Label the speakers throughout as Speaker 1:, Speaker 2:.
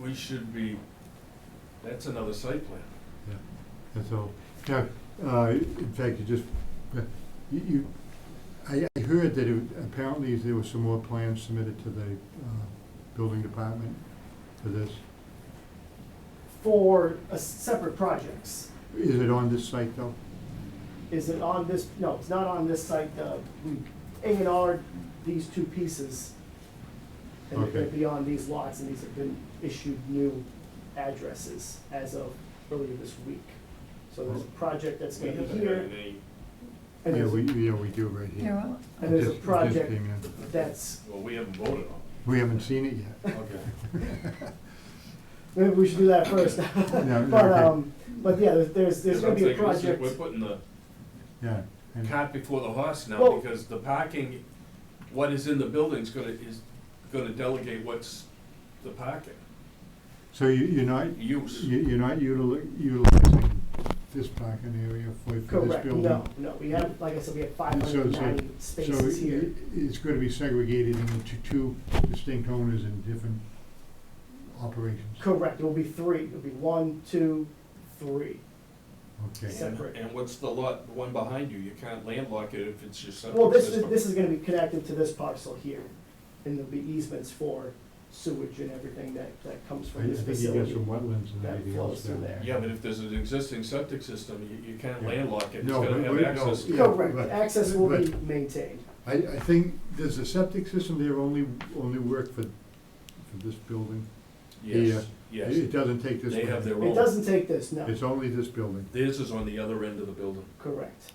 Speaker 1: we should be, that's another site plan.
Speaker 2: And so, yeah, uh, in fact, you just, you, you, I, I heard that it, apparently there were some more plans submitted to the, uh, building department for this.
Speaker 3: for a separate projects.
Speaker 2: Is it on this site though?
Speaker 3: Is it on this, no, it's not on this site, uh, we A and R these two pieces. And they're
Speaker 2: Okay.
Speaker 3: gonna be on these lots, and these have been issued new addresses as of earlier this week. So there's a project that's
Speaker 1: We
Speaker 3: gonna be
Speaker 1: haven't had
Speaker 3: here,
Speaker 1: any,
Speaker 3: and
Speaker 2: Yeah, we,
Speaker 3: there's,
Speaker 2: yeah, we do right
Speaker 4: Here,
Speaker 2: here.
Speaker 4: what?
Speaker 3: and there's
Speaker 2: It just-
Speaker 3: a
Speaker 2: it just
Speaker 3: project
Speaker 2: came in.
Speaker 3: that's,
Speaker 1: well, we haven't voted on
Speaker 2: We haven't seen it yet.
Speaker 1: it. Okay.
Speaker 3: maybe we should do that first.
Speaker 2: no,
Speaker 3: But,
Speaker 2: okay.
Speaker 3: um, but yeah, there's- there's, there's
Speaker 1: Because I'm
Speaker 3: gonna be a
Speaker 1: thinking this is-
Speaker 3: project.
Speaker 1: We're putting the
Speaker 2: Mm-hmm. Yeah. and-
Speaker 1: cart before the horse now,
Speaker 3: Well-
Speaker 1: because the parking, what is in the building's gonna, is gonna delegate what's the parking
Speaker 2: So you, you're not,
Speaker 1: use.
Speaker 2: you- you're not utili- utilizing this parking area for, for this
Speaker 3: Correct,
Speaker 2: building?
Speaker 3: no, no, we have, like I said, we have five
Speaker 2: And so-
Speaker 3: hundred and
Speaker 2: so-
Speaker 3: ninety spaces
Speaker 2: So
Speaker 3: here.
Speaker 2: it- it's going to be segregated into two distinct owners and different operations?
Speaker 3: Correct, it will be three, it'll be one, two, three.
Speaker 2: Okay.
Speaker 1: And
Speaker 3: Separate.
Speaker 1: and what's the lot, the one behind you, you can't landlock it if it's your septic
Speaker 3: Well, this is,
Speaker 1: system.
Speaker 3: this is gonna be connected to this parcel here, and there'll be easements for sewage and everything that, that comes
Speaker 2: I I
Speaker 3: from this
Speaker 2: think you got
Speaker 3: facility.
Speaker 2: some wetlands and
Speaker 3: that
Speaker 2: everything
Speaker 3: flows
Speaker 2: else
Speaker 3: through
Speaker 2: down
Speaker 3: there.
Speaker 2: there.
Speaker 1: Yeah, but if there's an existing septic system, you, you can't
Speaker 2: Yeah.
Speaker 1: landlock it, it's
Speaker 2: No,
Speaker 1: gonna
Speaker 2: but
Speaker 1: have
Speaker 2: we- no.
Speaker 1: access.
Speaker 2: Yeah,
Speaker 3: Correct,
Speaker 2: but-
Speaker 3: access will be
Speaker 2: but-
Speaker 3: maintained,
Speaker 2: I, I think, does the septic system there only, only work for, for this building?
Speaker 1: Yes,
Speaker 2: It-
Speaker 1: yes,
Speaker 2: It doesn't take this
Speaker 1: they have
Speaker 2: building?
Speaker 1: their
Speaker 3: it
Speaker 1: own,
Speaker 3: doesn't take this, no,
Speaker 2: It's only this building?
Speaker 1: theirs is on the other end of the building.
Speaker 3: correct.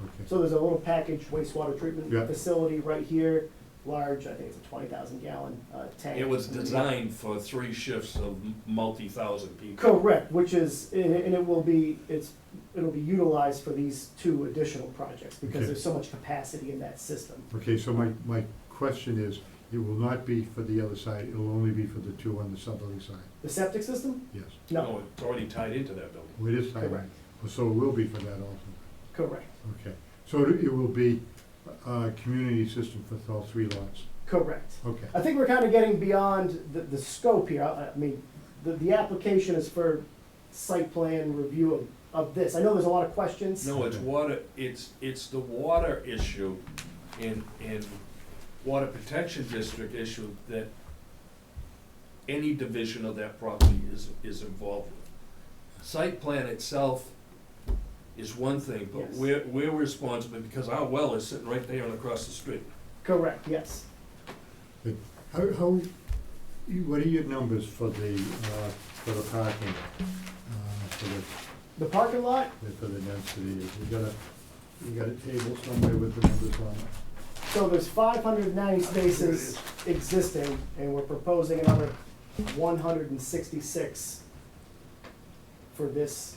Speaker 2: Okay.
Speaker 3: So there's a little packaged wastewater treatment
Speaker 2: Yeah.
Speaker 3: facility right here, large, I think it's a twenty thousand gallon, uh, tank.
Speaker 1: It was
Speaker 3: And then-
Speaker 1: designed for three shifts of m- multi-thousand people.
Speaker 3: Correct, which is, and and it will be, it's, it'll be utilized for these two additional projects,
Speaker 2: Okay.
Speaker 3: because there's so much capacity in that system.
Speaker 2: Okay, so my, my question is, it will not be for the other side, it'll only be for the two on the southerly side,
Speaker 3: The septic system?
Speaker 2: yes?
Speaker 3: No,
Speaker 1: It's already tied into that building.
Speaker 2: Well, It is tied in.
Speaker 3: Correct.
Speaker 2: So it will be for that also?
Speaker 3: correct,
Speaker 2: Okay, so it it will be a community system for all three lots?
Speaker 3: correct.
Speaker 2: Okay,
Speaker 3: I think we're kind of getting beyond the, the scope here, I, I mean, the, the application is for site plan review of, of this. I know there's a lot of questions.
Speaker 1: No, it's water, it's, it's the water issue in, in water protection district issue that any division of that property is, is involved with. Site plan itself is one thing, but
Speaker 3: Yes.
Speaker 1: we're, we're responsible because our well is sitting right there and across the street.
Speaker 3: Correct, yes.
Speaker 2: how, how, you- what are your numbers for the, uh, for the parking? uh, For the,
Speaker 3: The parking lot,
Speaker 2: for the density, you got a, you got a table somewhere with the numbers on it?
Speaker 3: so there's five hundred and ninety spaces existing, and we're proposing another one hundred and sixty-six for this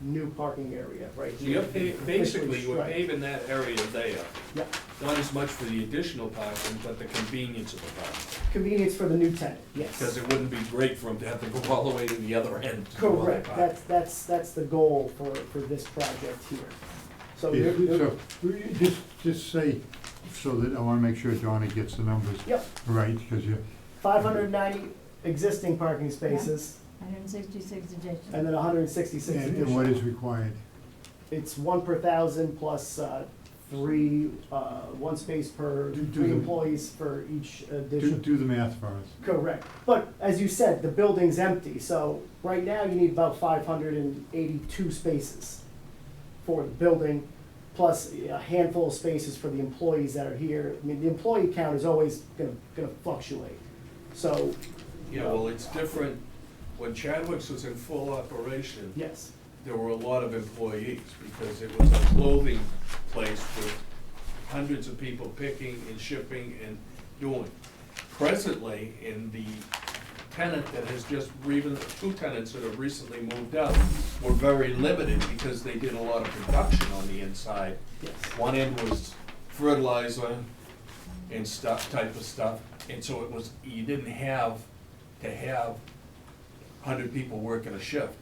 Speaker 3: new parking area right
Speaker 1: So
Speaker 3: here.
Speaker 1: you're pa- basically, you're
Speaker 3: Right.
Speaker 1: paving that area there,
Speaker 3: Yeah,
Speaker 1: not as much for the additional parking, but the convenience of the parking.
Speaker 3: convenience for the new tenant, yes.
Speaker 1: Because it wouldn't be great for them to have to go all the way to the other end. to do all that
Speaker 3: Correct,
Speaker 1: parking.
Speaker 3: that's, that's, that's the goal for, for this project here. So, there-
Speaker 2: Oh, Yeah,
Speaker 3: there-
Speaker 2: So, we- just, just say, so that I wanna make sure Johnny gets the numbers
Speaker 3: yep,
Speaker 2: right, because you,
Speaker 3: five hundred and ninety existing parking spaces,
Speaker 4: Hundred and sixty-six additional.
Speaker 3: and then hundred and sixty-six
Speaker 2: and and what
Speaker 3: additional.
Speaker 2: is required?
Speaker 3: It's one per thousand plus, uh, three, uh, one space per,
Speaker 2: Do- do
Speaker 3: three
Speaker 2: the-
Speaker 3: employees for each
Speaker 2: Do,
Speaker 3: addition.
Speaker 2: do the math for us.
Speaker 3: Correct, but as you said, the building's empty, so right now you need about five hundred and eighty-two spaces for the building, plus a handful of spaces for the employees that are here. I mean, the employee count is always gonna, gonna fluctuate, so,
Speaker 1: Yeah, well, it's different. When Chadwick's was in full operation,
Speaker 3: yes,
Speaker 1: there were a lot of employees because it was a clothing place with hundreds of people picking and shipping and doing. Presently, in the tenant that has just, even the two tenants that have recently moved out were very limited because they did a lot of production on the inside.
Speaker 3: yes,
Speaker 1: One end was fertilizer and stuff, type of stuff, and so it was, you didn't have to have hundred people working a shift.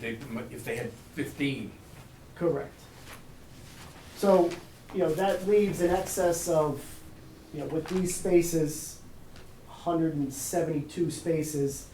Speaker 1: They, they, if they had fifteen,
Speaker 3: correct. So, you know, that leaves an excess of, you know, with these spaces, hundred and seventy-two spaces